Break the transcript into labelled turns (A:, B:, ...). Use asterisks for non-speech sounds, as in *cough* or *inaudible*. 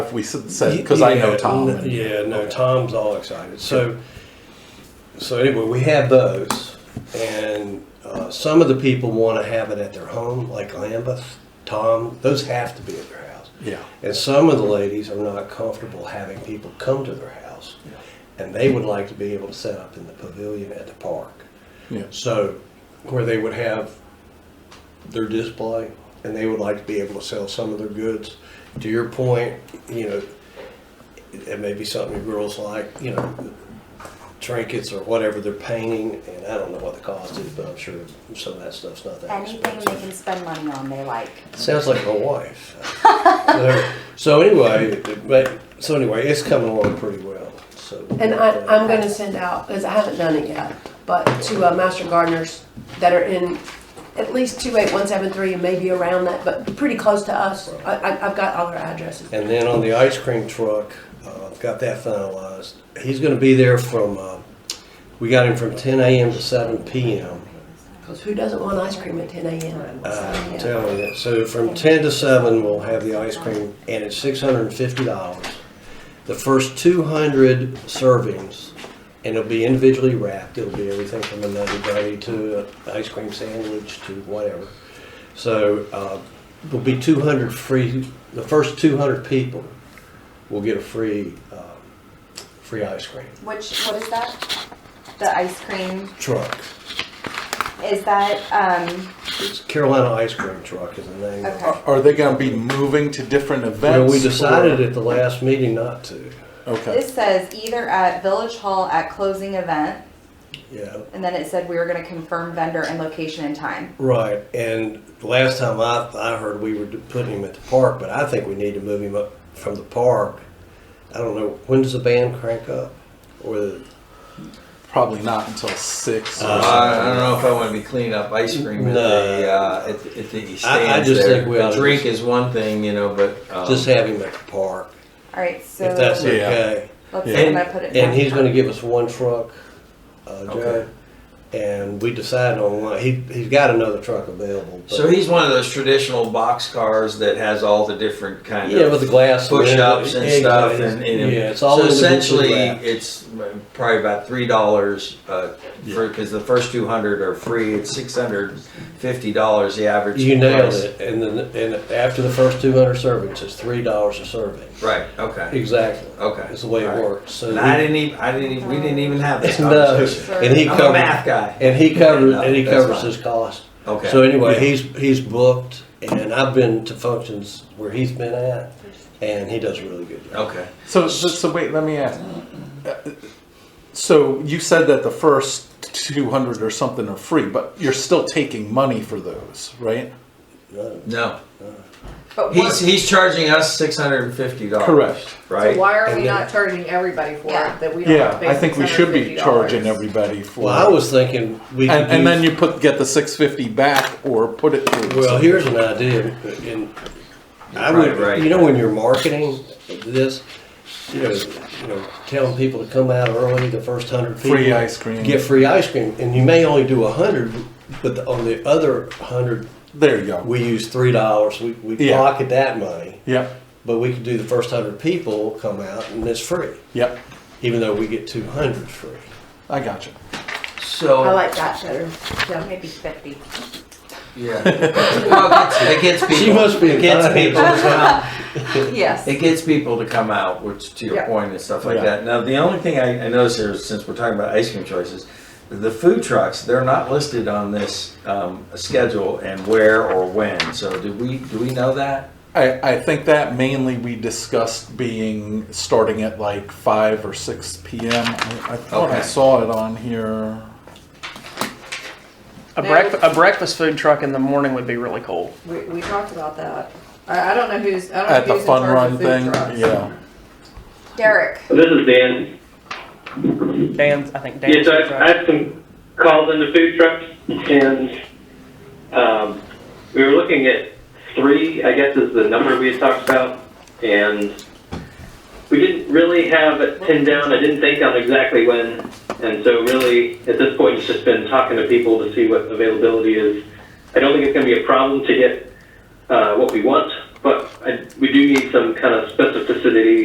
A: stuff we s- said because I know
B: Yeah,
A: Tom.
B: n-
A: and-
B: Yeah, no, Tom's all excited. So, so anyway, we have those, and uh, some of the people want to have it at their home, like Lambeth, Tom. Those have to be at their house,
A: yeah.
B: and some of the ladies are not comfortable having people come to their house, and they would like to be able to set up in the pavilion at the park.
A: Yeah.
B: So, where they would have their display, and they would like to be able to sell some of their goods. To your point, you know, it may be something the girls like, you know, trinkets or whatever they're painting, and I don't know what the cost is, but I'm sure some of that stuff's not that
C: Anything
B: expensive.
C: they can spend money on, they like.
B: Sounds like my wife. so, so anyway, but so anyway, it's coming along pretty well. So
D: And I, I'm gonna send out, because I haven't done it yet, but to uh, master gardeners that are in at least two eight one seven three and maybe around that, but pretty close to us. I, I, I've got all their addresses.
B: And then on the ice cream truck, uh, I've got that finalized. He's going to be there from, uh, we got him from 10 a.m. to 7 p.m.
D: Because who doesn't want ice cream at ten AM?
B: Uh,
D: So,
B: telling you. So from 10 to 7, we'll have the ice cream, and it's $650. The first 200 servings, and it'll be individually wrapped. It'll be everything from another buddy to an ice cream sandwich to whatever. So uh, there'll be 200 free. The first 200 people will get a free um, free ice cream
C: Which, what is that? The ice cream,
B: truck.
C: is that, um,
B: It's Carolina Ice Cream Truck is the name. of it.
C: okay.
A: Are they going to be moving to different
B: Well,
A: events?
B: we decided
A: or-
B: at the last meeting not to.
A: Okay.
C: This says either at Village Hall at closing event,
B: Yeah.
C: and then it said we were gonna confirm vendor and location and time.
B: Right, and last time I, I heard we were putting him at the park, but I think we need to move him up from the park. I don't know, when does the band crank up? Or the,
A: Probably not until six. Or
B: Uh,
E: I I don't know if I want to be cleaning up ice cream
B: No.
E: at the, uh, at the- at the stands
B: I- I just
E: there.
B: think we
E: The
B: ought to
E: Drink
B: just-
E: is one thing, you know, but, um,
B: just have him at the park,
C: Alright, so,
B: if that's
C: let's
A: Yeah.
B: okay.
C: see, I'm
E: And-
C: gonna put it.
B: And
C: down.
B: he's gonna give us one truck, uh, Joe.
E: Okay.
B: And we decided on one, he, he's got another truck available. but-
E: so he's one of those traditional box cars that has all the different kind
B: Yeah,
E: of
B: with the glass.
E: push-ups and stuff
B: Exactly.
E: and, and-
B: Yeah, it's all
E: so
B: individually
E: essentially
B: wrapped.
E: it's probably about three dollars uh, for because the first 200 are free it's 650 dollars the average
B: You nailed
E: price.
B: it, and then, and after the first two hundred servings, it's three dollars a serving.
E: right okay
B: Exactly.
E: Okay.
B: That's the way it
E: All right.
B: works. So
E: And i
B: we-
E: didn't even i didn't even we didn't even have
B: *laughs*
E: this
B: no,
E: conversation.
B: and he
E: I'm a
B: covers,
E: math guy
B: and he covers,
E: No,
B: and he
E: that's
B: covers
E: fine.
B: his cost.
E: okay
B: So anyway, he's, he's booked, and I've been to functions where he's been at, and he does a really good job.
E: okay
A: So, so, so wait, let me ask. uh, So you said that the first 200 or something are free, but you're still taking money for those, right?
B: No.
E: no
F: But
E: he's
F: what,
E: he's charging us 650 dollars
A: Correct.
E: right
F: so why are
B: And
F: we
B: then-
F: not charging everybody for
C: Yeah.
F: it? That we don't
A: Yeah,
F: have to pay
A: I think we should be
F: $650?
A: charging everybody for.
B: Well, I was thinking we could
A: And, and then
B: use,
A: you put, get the 650 back or put it through.
B: well, here's an idea, and I
E: Right,
B: would,
E: right.
B: you know, when you're marketing this, you know, you know, telling people to come out early, the first hundred people.
A: Free ice cream.
B: Get free ice cream, and you may only do a hundred, but the- on the other hundred,
A: There you go.
B: we use three dollars, we, we
A: Yeah.
B: pocket that money,
A: Yep,
B: but we could do the first hundred people come out and it's free,
A: yep,
B: even though we get two hundred free.
A: I got you.
E: so
D: I like that better. Yeah.
C: Maybe fifty.
E: yeah well, it gets, it gets people
B: *laughs* She must be
E: it gets
B: excited.
E: people to come out
F: *laughs*
C: Yes.
E: It gets people to come out, which to your
F: Yeah.
E: point and stuff like
A: Yeah.
E: that. Now, the only thing I, I noticed here, since we're talking about ice cream choices, the food trucks they're not listed on this um, schedule and where or when. So, do we do we know that?
A: I, I think that mainly we discussed being starting at like five or six PM. I I thought I
E: Okay.
A: saw it on here.
G: A, breakf- a breakfast food truck in the morning would be really cool.
F: We, we talked about that. I, I don't know who's, I don't know
A: At the
F: who's in
A: fun
F: charge
A: run
F: of food
A: thing,
F: trucks.
A: yeah.
C: Derek,
H: This is Dan.
G: Dan's, I think Dan's.
H: Yes, I've, I've some calls into food trucks, and um, we were looking at three, I guess, is the number we had talked about, and we didn't really have it pinned down. I didn't think on exactly when, and so really at this point, it's just been talking to people to see what availability is. I don't think it's going to be a problem to get uh, what we want, but I, we do need some kind of specificity